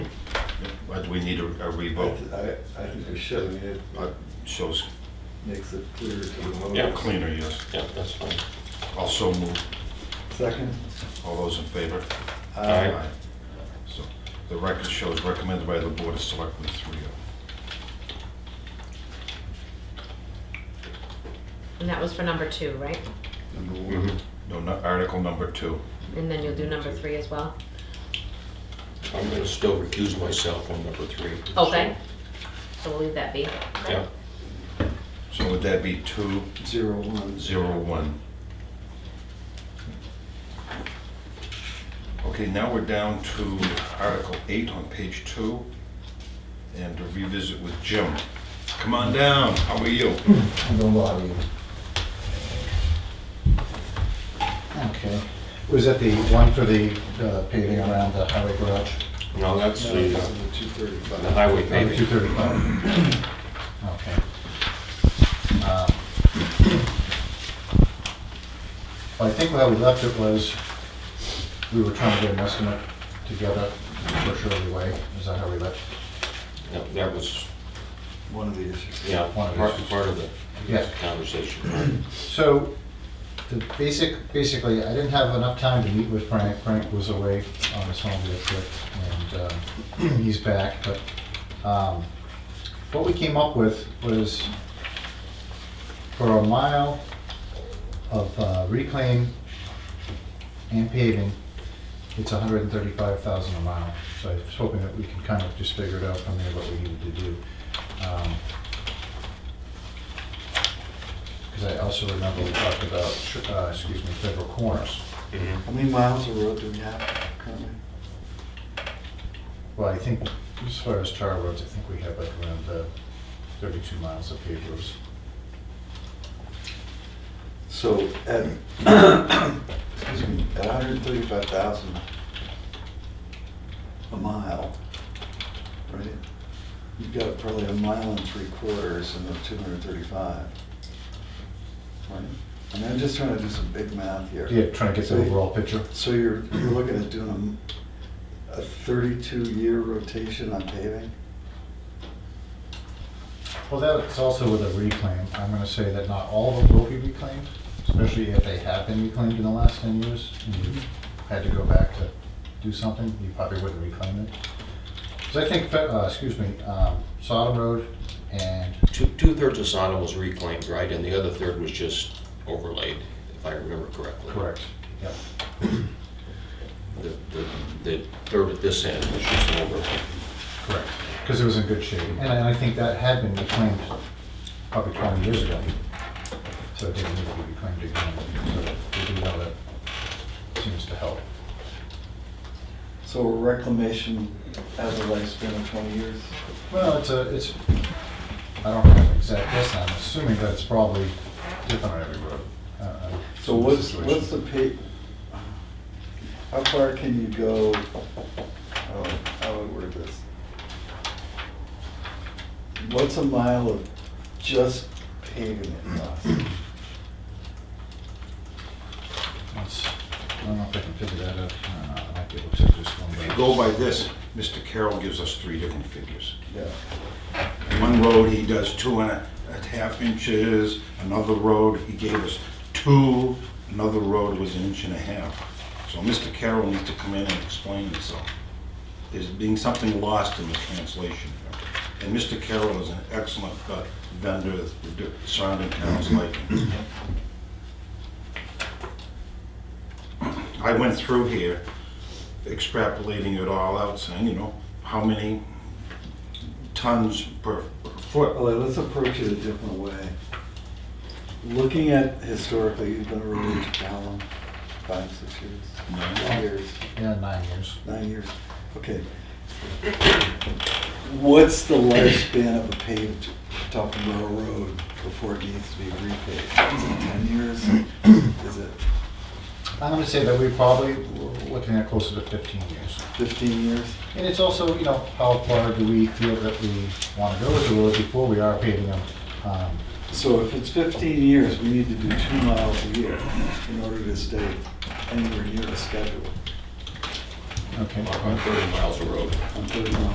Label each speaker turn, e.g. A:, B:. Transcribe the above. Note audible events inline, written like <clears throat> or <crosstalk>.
A: Uh, Do we need a a revote?
B: I, I think we should, I mean, it
A: Uh, Shows
B: makes it clearer to the voters.
C: Yeah.
A: cleaner, yes.
C: Yeah, that's fine.
A: Also move,
B: Second? uh,
A: all those in favor?
C: Aye.
A: So the record shows recommended by the Board of Selectmen oh. 3
D: And that was for number two, right?
B: Number one.
C: Mm-hmm.
A: No, no, Article number two.
D: And then you'll do number three as well?
C: I'm gonna still recuse myself on number three.
D: Okay. So we'll leave that be.
C: Yeah,
A: So would that be two,
B: Zero one.
A: zero, one? Okay, now we're down to Article eight on page two, and to revisit with Jim. Come on down, how are you?
E: I don't bother you. Okay. Was that the one for the uh, paving around the highway garage? Uh,
C: no, that's
B: No,
C: the,
B: this
C: uh,
B: is the two
C: the
B: thirty-five.
C: highway
E: Two
C: paving.
E: thirty-five. Okay. Um, Well, I think how we left it was, we were trying to get an estimate together for Shirley Way. Is that how we left?
C: No, That was,
B: One of the issues.
C: yeah,
E: One of
C: part,
E: these.
C: part of the
E: Yeah.
C: conversation.
E: So, the basic, basically, I didn't have enough time to meet with Frank. Frank was away on his home visit, and um, <clears throat> he's back, but um, what we came up with was for a mile of uh, reclaim and paving, it's hundred and thirty-five thousand a mile. So I was hoping that we can kind of just figure it out from there what we needed to do. Um, because I also remember we talked about, uh, excuse me, federal corners.
C: Mhm.
B: How many miles of road do we have currently?
E: Well, I think, as far as tar roads, I think we have like around uh, 32 miles of paved roads.
B: So at, excuse me, at hundred and thirty-five thousand a mile, right? You've got probably a mile and three quarters in the two hundred and thirty-five. Right? I mean, I'm just trying to do some big math here.
E: Yeah, trying to get the overall picture.
B: So you're, you're looking at doing a m- a thirty-two year rotation on paving?
E: Well, that's also with a reclaim. I'm going to say that not all of them will be reclaimed, especially if they have been reclaimed in the last 10 years. and you Had to go back to do something, you probably wouldn't reclaim it. Because I think, uh, excuse me, um, Sodom Road and,
C: Two, two-thirds of Sodom was reclaimed, right, and the other third was just overlaid, if I remember correctly.
E: correct, yep.
C: The, the, the third at this end was just overlaid.
E: Correct, because it was in good shape. And I I think that had been reclaimed probably 20 years ago. So it didn't need to be reclaimed again. So we do know that seems to help.
B: So reclamation has a lifespan of twenty years?
E: Well, it's a, it's, I don't have an exact guess, I'm assuming that it's probably different on every road. Uh, uh,
B: So what's,
E: situation.
B: what's the pay, how far can you go, oh, how would I word this? What's a mile of just paving it cost?
E: It's- I don't know if I can figure that out. Uh, I might be able to check this one.
A: If you
E: but-
A: go by this, Mr. Carroll gives us three different figures.
B: Yeah,
A: One road, he does two and a a half inches, another road, he gave us two, another road was an inch and a half. So Mr. Carroll needs to come in and explain himself. There's being something lost in the translation. here. And Mr. Carroll is an excellent uh, vendor, that the di- surrounding towns like him. I went through here extrapolating it all out, saying, you know, how many tons per per foot.
B: Well, let's approach it a different way. Looking at historically, you've been a road to Calum, five, six years, nine years,
E: Yeah, nine years.
B: nine years, okay. What's the lifespan of a paved Tuckamore Road before it needs to be repaved? Is it ten years? Is it
E: I'm going to say that we probably were looking at closer to 15 years.
B: fifteen years?
E: And it's also, you know, how far do we feel that we want to go with the road before we are paving them? Um,
B: So if it's fifteen years, we need to do two miles a year in order to stay anywhere near the schedule
E: Okay.
C: About Thirty miles of road.
B: on thirty miles.